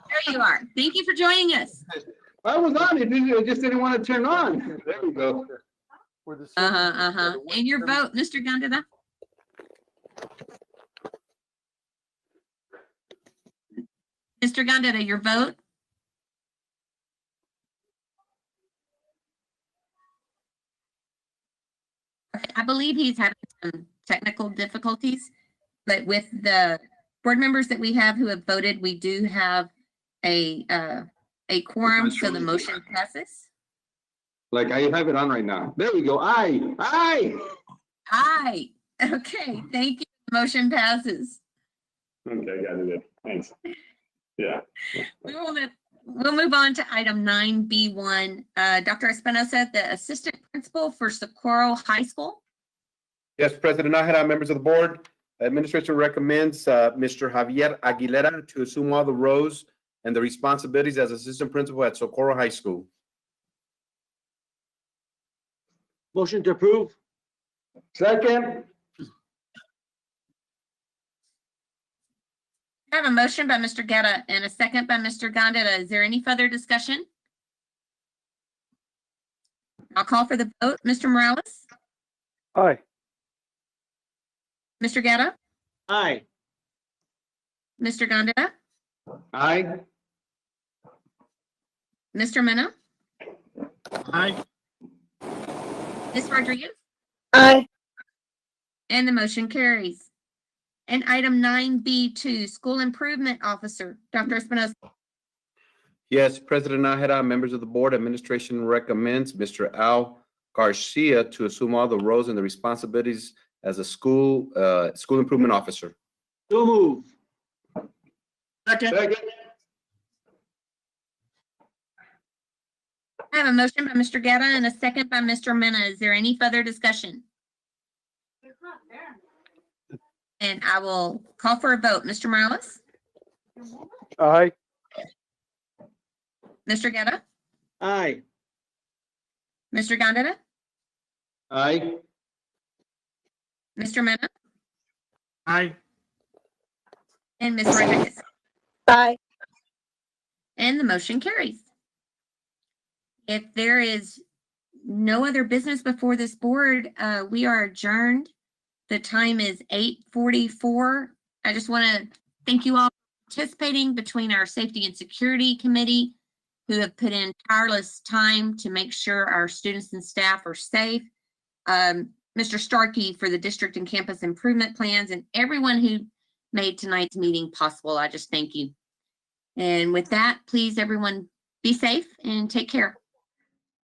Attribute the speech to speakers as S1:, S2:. S1: you are. Thank you for joining us.
S2: I was on it, didn't- I just didn't want to turn on. There we go.
S3: For the city-
S1: Uh-huh, uh-huh.
S3: for the
S1: And your
S3: winter-
S1: vote, Mr. Gondeta? Mr. Gondeta, your vote? I believe he's having some technical difficulties, but with the board members that we have who have voted, we do have a, uh, a quorum, so the motion passes.
S2: Like I have it on right now. There we go. Aye, aye.
S1: Aye. Okay, thank you. Motion passes.
S2: Okay, got it. Thanks. Yeah.
S1: We will move- We'll move on to item nine B one. Dr. Espinosa, the Assistant Principal for Socorro High School.
S4: Yes, President Nahara, members of the board, administration recommends uh, Mr. Javier Aguilera to assume all the roles and the responsibilities as assistant principal at Socorro High School.
S3: Motion to approve?
S2: Second,
S1: I have a motion by Mr. Getta and a second by Mr. Gondeta. Is there any further discussion? I'll call for the vote. Mr. Morales,
S3: Aye.
S1: Mr. Getta,
S3: Aye.
S1: Mr. Gondeta,
S2: aye.
S1: Mr. Mena,
S3: Aye.
S1: Ms. Rodriguez.
S5: Aye.
S1: And the motion carries. And item nine B two, School Improvement Officer, Dr. Espinoza.
S4: Yes, President Nahara, members of the board, administration recommends Mr. Al Garcia to assume all the roles and the responsibilities as a school, uh, school improvement officer.
S3: So move. Second?
S2: Second,
S1: I have a motion by Mr. Gata and a second by Mr. Mena. Is there any further discussion? And I will call for a vote. Mr. Morales,
S3: Aye.
S1: Mr. Gata,
S3: Aye.
S1: Mr. Gondeta,
S2: aye.
S1: Mr. Mena,
S3: Aye.
S1: and Ms. Rodriguez.
S5: Aye.
S1: And the motion carries. If there is no other business before this board, uh, we are adjourned. The time is eight forty-four. I just want to thank you all for participating between our Safety and Security Committee, who have put in tireless time to make sure our students and staff are safe. Um, Mr. Starkey for the district and campus improvement plans and everyone who made tonight's meeting possible. I just thank you. And with that, please, everyone, be safe and take care.